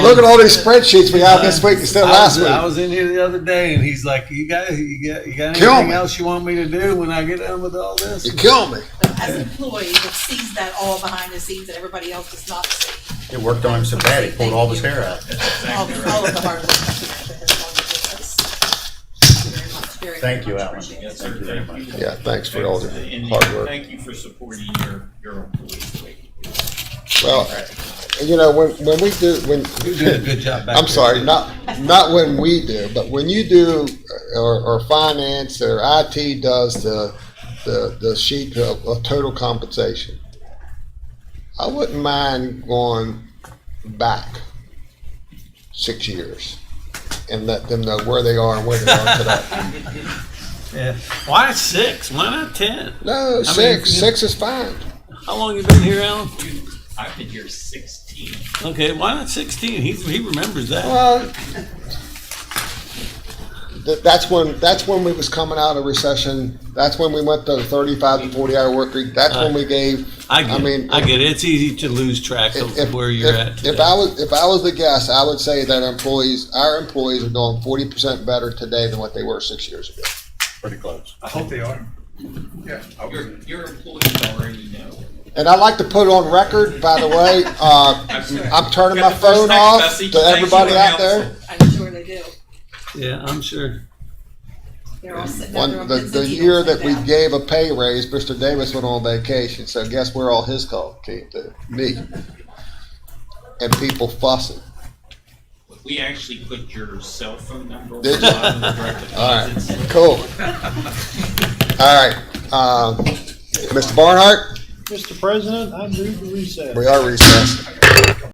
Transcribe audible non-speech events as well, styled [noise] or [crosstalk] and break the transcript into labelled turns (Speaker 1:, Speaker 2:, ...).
Speaker 1: look at all these spreadsheets we have this week [laughs] instead of
Speaker 2: I was-
Speaker 1: last week.
Speaker 2: I was in here the other day, and he's like, "You got, you got, you got
Speaker 1: Kill
Speaker 2: anything
Speaker 1: me.
Speaker 2: else you want me to do when I get done with
Speaker 1: [laughs]
Speaker 2: all this?"
Speaker 1: You kill me.
Speaker 3: as an employee that sees that all behind the scenes that everybody else does not see.
Speaker 4: It worked on him so bad, he pulled all of his hair out.
Speaker 3: All, all of the hard work that has gone into this. Very much, very
Speaker 4: Thank you,
Speaker 3: much
Speaker 4: Alan.
Speaker 3: appreciated.
Speaker 5: Yes, sir, thank you.
Speaker 1: Yeah, thanks for all your
Speaker 5: And
Speaker 1: hard work.
Speaker 5: Thank you for supporting your, your employees.
Speaker 1: Well, you know, when, when we do, when.
Speaker 2: You did a good job back
Speaker 1: I'm
Speaker 2: there.
Speaker 1: sorry, not, not when we do, but when you do, or, or finance, or IT does the, the, the sheet of, of total compensation. I wouldn't mind going back six years and let them know where they are and where they are
Speaker 2: [laughs]
Speaker 1: today.
Speaker 2: Yeah. Why six? Why not ten?
Speaker 1: No, six, six is fine.
Speaker 2: How long you been here, Alan?
Speaker 5: I've been here sixteen.
Speaker 2: Okay, why not sixteen? He he remembers that.
Speaker 1: Well, th- that's when that's when we was coming out of recession. That's when we went to the thirty-five to forty-hour work week. That's when
Speaker 2: Uh,
Speaker 1: we gave.
Speaker 2: I get.
Speaker 1: I
Speaker 2: I
Speaker 1: mean,
Speaker 2: I get it. It's easy to lose track of where you're
Speaker 1: if,
Speaker 2: at.
Speaker 1: If
Speaker 2: Today.
Speaker 1: I was if I was the guess, I would say that employees, our employees, are doing forty percent better today than what they were six years ago.
Speaker 4: Pretty close.
Speaker 6: I hope they are.
Speaker 5: Your, your employees already know.
Speaker 1: And I like to put on record, by the way, uh, I'm turning
Speaker 5: Got
Speaker 1: my
Speaker 5: the first
Speaker 1: phone
Speaker 5: text
Speaker 1: off
Speaker 5: message.
Speaker 1: to
Speaker 5: Thank
Speaker 1: everybody
Speaker 5: you,
Speaker 1: out
Speaker 5: council.
Speaker 1: there.
Speaker 3: I'm sure they do.
Speaker 2: yeah, I'm sure.
Speaker 3: They're all sitting out there
Speaker 1: One,
Speaker 3: on
Speaker 1: the,
Speaker 3: pins
Speaker 1: the
Speaker 3: and
Speaker 1: year
Speaker 3: needles
Speaker 1: that we
Speaker 3: right now.
Speaker 1: gave a pay raise, Mr. Davis went on vacation, so guess where all his call came to? Me. And people fussing.
Speaker 5: We actually put your cell phone number on the
Speaker 1: Did you?
Speaker 5: bottom of the record.
Speaker 1: All right, cool. All right, um, Mr. Barnhart,
Speaker 7: Mr. President, I move to recess.
Speaker 1: we are recessed.